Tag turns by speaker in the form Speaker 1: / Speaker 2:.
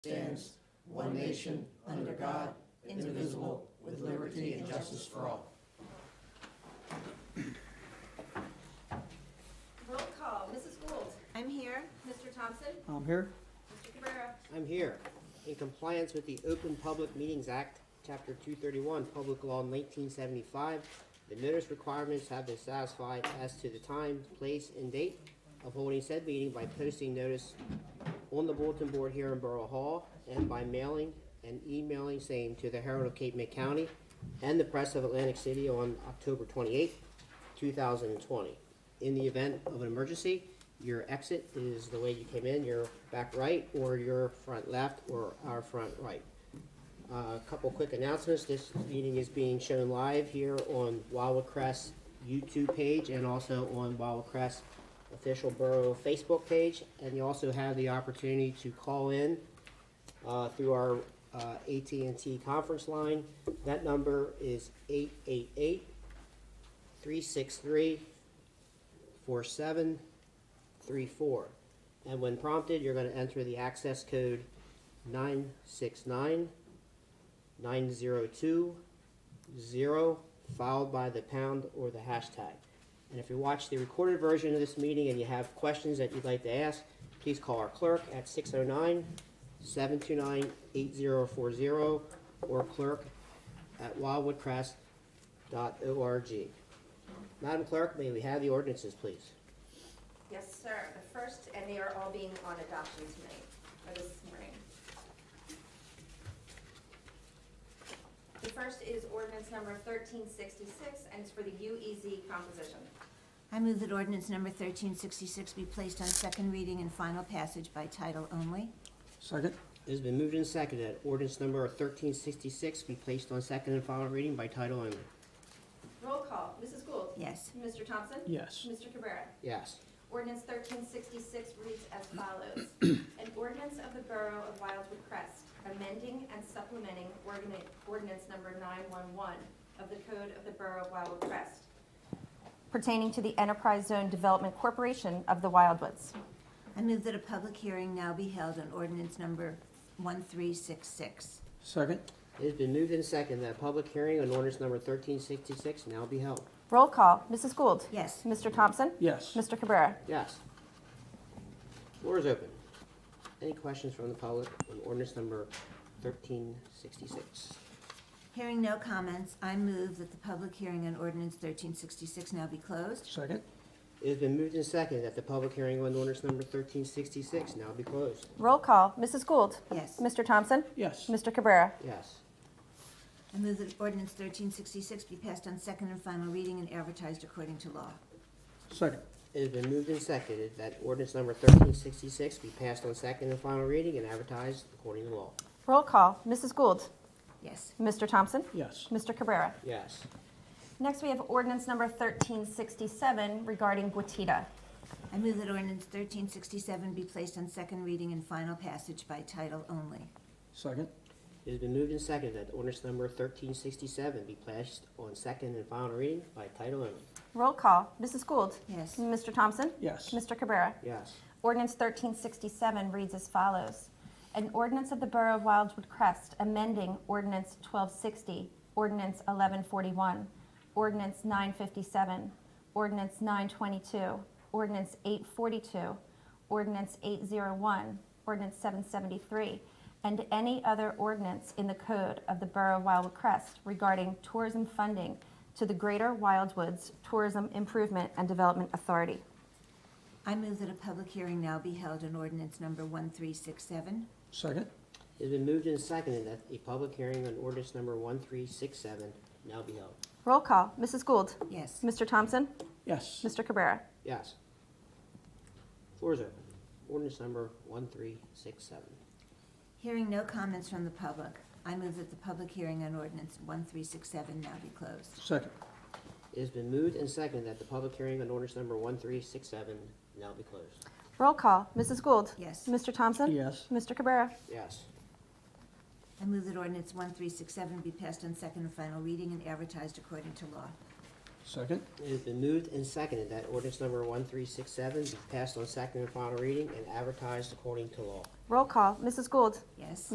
Speaker 1: stands, one nation, under God, indivisible, with liberty and justice for all.
Speaker 2: Roll call, Mrs. Gould,
Speaker 3: I'm here.
Speaker 2: Mr. Thompson,
Speaker 4: I'm here.
Speaker 2: Mr. Cabrera,
Speaker 5: I'm here. In compliance with the Open Public Meetings Act, Chapter 231, Public Law 1975, the notice requirements have been satisfied as to the time, place, and date of holding said meeting by posting notice on the bulletin board here in Borough Hall and by mailing and emailing same to the Herald of Cape May County and the Press of Atlantic City on October 28, 2020. In the event of an emergency, your exit is the way you came in, your back right or your front left or our front right. Uh, A couple quick announcements. This meeting is being shown live here on Wawa Crest YouTube page and also on Wawa Crest official borough Facebook page. And you also have the opportunity to call in uh, through our uh, AT&T conference line. That number is 888 363 4734. And when prompted, you're going to enter the access code 969 902 0 followed by the pound or the hashtag. And if you watch the recorded version of this meeting and you have questions that you'd like to ask, please call our clerk at 609 729 8040 or clerk at wildwoodcrest.org. Madam Clerk, may we have the ordinances, please?
Speaker 2: Yes, sir. The first, and they are all being on adoption tonight, or this morning. The first is ordinance number thirteen sixty-six, and it's for the UEZ composition.
Speaker 3: I move that ordinance number 1366 be placed on second reading and final passage by title only.
Speaker 4: Second.
Speaker 5: It has been moved and seconded. Ordinance number 1366 be placed on second and final reading by title only.
Speaker 2: Roll call, Mrs. Gould.
Speaker 3: Yes.
Speaker 2: Mr. Thompson.
Speaker 4: Yes.
Speaker 2: Mr. Cabrera.
Speaker 5: Yes.
Speaker 2: Ordinance thirteen sixty-six reads as follows. An ordinance of the Borough of Wildwood Crest, amending and supplementing ordinance, ordinance number nine-one-one of the Code of the Borough of Wildwood Crest pertaining to the Enterprise Zone Development Corporation of the Wildwoods.
Speaker 3: I move that a public hearing now be held on ordinance number 1366.
Speaker 4: Second.
Speaker 5: It has been moved and seconded that a public hearing on ordinance number 1366 now be held.
Speaker 2: Roll call, Mrs. Gould.
Speaker 3: Yes.
Speaker 2: Mr. Thompson.
Speaker 4: Yes.
Speaker 2: Mr. Cabrera.
Speaker 5: Yes. Floor is open. Any questions from the public on ordinance number 1366?
Speaker 3: Hearing no comments, I move that the public hearing on ordinance 1366 now be closed.
Speaker 4: Second.
Speaker 5: It has been moved and seconded that the public hearing on ordinance number 1366 now be closed.
Speaker 2: Roll call, Mrs. Gould.
Speaker 3: Yes.
Speaker 2: Mr. Thompson.
Speaker 4: Yes.
Speaker 2: Mr. Cabrera.
Speaker 5: Yes.
Speaker 3: I move that ordinance 1366 be passed on second and final reading and advertised according to law.
Speaker 4: Second.
Speaker 5: It has been moved and seconded that ordinance number 1366 be passed on second and final reading and advertised according to law.
Speaker 2: Roll call, Mrs. Gould.
Speaker 3: Yes.
Speaker 2: Mr. Thompson.
Speaker 4: Yes.
Speaker 2: Mr. Cabrera.
Speaker 5: Yes.
Speaker 2: Next, we have ordinance number 1367 regarding Guatita.
Speaker 3: I move that ordinance 1367 be placed on second reading and final passage by title only.
Speaker 4: Second.
Speaker 5: It has been moved and seconded that ordinance number 1367 be placed on second and final reading by title only.
Speaker 2: Roll call, Mrs. Gould.
Speaker 3: Yes.
Speaker 2: Mr. Thompson.
Speaker 4: Yes.
Speaker 2: Mr. Cabrera.
Speaker 5: Yes.
Speaker 2: Ordinance 1367 reads as follows. An ordinance of the Borough of Wildwood Crest amending ordinance 1260, ordinance 1141, ordinance 957, ordinance 922, ordinance 842, ordinance 801, ordinance 773, and any other ordinance in the code of the Borough of Wildwood Crest regarding tourism funding to the Greater Wildwoods Tourism Improvement and Development Authority.
Speaker 3: I move that a public hearing now be held on ordinance number 1367.
Speaker 4: Second.
Speaker 5: It has been moved and seconded that a public hearing on ordinance number 1367 now be held.
Speaker 2: Roll call, Mrs. Gould.
Speaker 3: Yes.
Speaker 2: Mr. Thompson?
Speaker 4: Yes.
Speaker 2: Mr. Cabrera?
Speaker 5: Yes. Floor is open. Ordinance number 1367.
Speaker 3: Hearing no comments from the public, I move that the public hearing on ordinance 1367 now be closed.
Speaker 4: Second.
Speaker 5: It has been moved and seconded that the public hearing on ordinance number 1367 now be closed.
Speaker 2: Roll call, Mrs. Gould?
Speaker 3: Yes.
Speaker 2: Mr. Thompson?
Speaker 4: Yes.
Speaker 2: Mr. Cabrera?
Speaker 5: Yes.
Speaker 3: I move that ordinance 1367 be passed on second and final reading and advertised according to law.
Speaker 4: Second.
Speaker 5: It has been moved and seconded that ordinance number 1367 be passed on second and final reading and advertised according to law.
Speaker 2: Roll call, Mrs. Gould.
Speaker 3: Yes.